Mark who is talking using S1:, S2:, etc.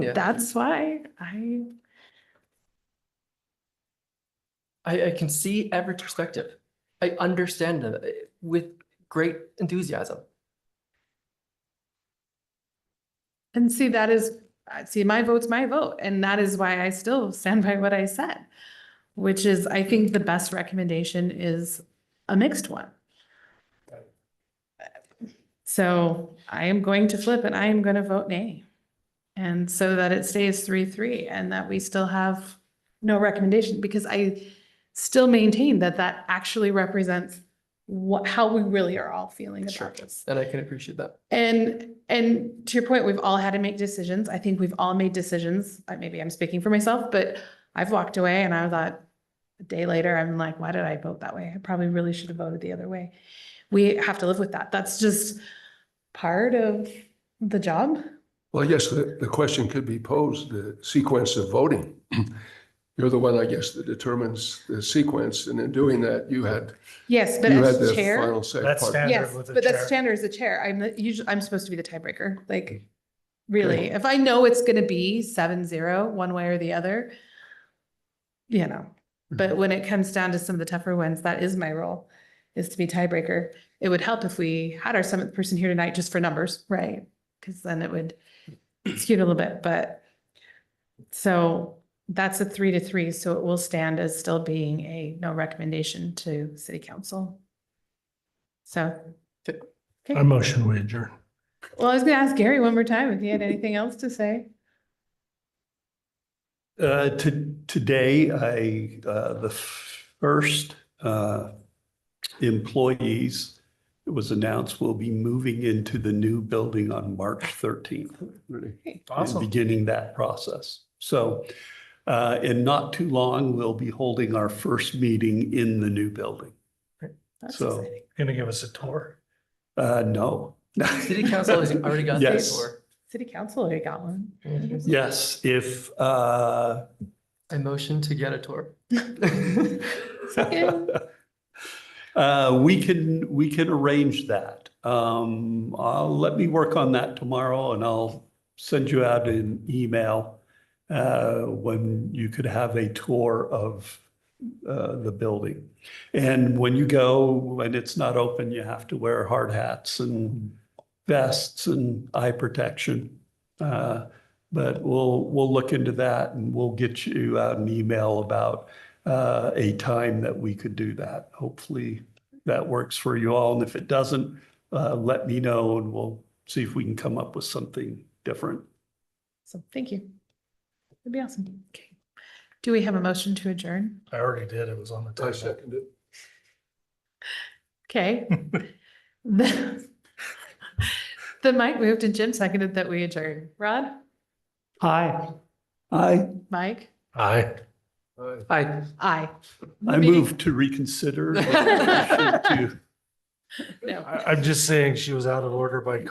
S1: Yeah.
S2: That's why I,
S1: I, I can see every perspective. I understand them eh, with great enthusiasm.
S2: and see, that is, I- see, my vote's my vote, and that is why I still stand by what I said. Which is, I think the best recommendation is a mixed one. So I am going to flip and I am gonna vote nay. And so that it stays three, three, and that we still have no recommendation, because I still maintain that that actually represents what, how we really are all feeling
S1: Sure.
S2: about this.
S1: And I can appreciate that.
S2: And, and to your point, we've all had to make decisions. I think we've all made decisions. I- Maybe I'm speaking for myself, but I've walked away and I thought a day later, I'm like, why did I vote that way? I probably really should have voted the other way. We have to live with that. That's just part of the job.
S3: Well, yes, the, the question could be posed, the sequence of voting. You're the one, I guess, that determines the sequence, and in doing that, you had,
S2: Yes, but
S3: you had
S2: as
S3: the
S2: chair,
S3: final say.
S4: That's
S3: part.
S4: standard
S2: yes,
S4: with the
S2: but that's
S4: chair.
S2: standard as the chair. I'm the- usually, I'm supposed to be the tiebreaker, like,
S3: Mm-hmm.
S2: really. If I know it's gonna be seven, zero, one way or the other, you know. But when it comes down to some of the tougher ones, that is my role, is to be tiebreaker. It would help if we had our seventh person here tonight just for numbers, right? Because then it would skew it a little bit, but so that's a three to three, so it will stand as still being a no recommendation to city council. So,
S4: I motion we adjourn.
S2: well, I was gonna ask Gary one more time if he had anything else to say.
S5: Uh, to, today, I, uh, the first, uh, employees, it was announced will be moving into the new building on March thirteenth. Beginning that process. So, uh, in not too long, we'll be holding our first meeting in the new building.
S2: That's
S5: So-
S2: exciting.
S4: Gonna give us a tour.
S5: Uh, no.
S1: City council has already got paid
S5: Yes.
S1: for.
S2: City council already got one.
S5: Yes, if, uh,
S1: I motion to get a tour.
S2: Second.
S5: Uh, we can, we can arrange that. Um, I'll, let me work on that tomorrow and I'll send you out an email uh, when you could have a tour of uh, the building. And when you go, when it's not open, you have to wear hard hats and vests and eye protection. Uh, But we'll, we'll look into that and we'll get you out an email about uh, a time that we could do that. Hopefully that works for you all. And if it doesn't, uh, let me know and we'll see if we can come up with something different.
S2: So thank you. That'd be awesome. Okay. Do we have a motion to adjourn?
S4: I already did. It was on
S5: Oh,
S4: the
S3: I
S4: table.
S3: second it.
S2: Okay. The the Mike moved and Jim seconded that we adjourn. Rod,
S5: Hi. I,
S2: Mike,
S4: Aye.
S3: Aye.
S1: Hi.
S2: I.
S5: I
S2: Meeting-
S5: move to reconsider. the motion to-
S2: No.
S4: I, I'm just saying she was out of order by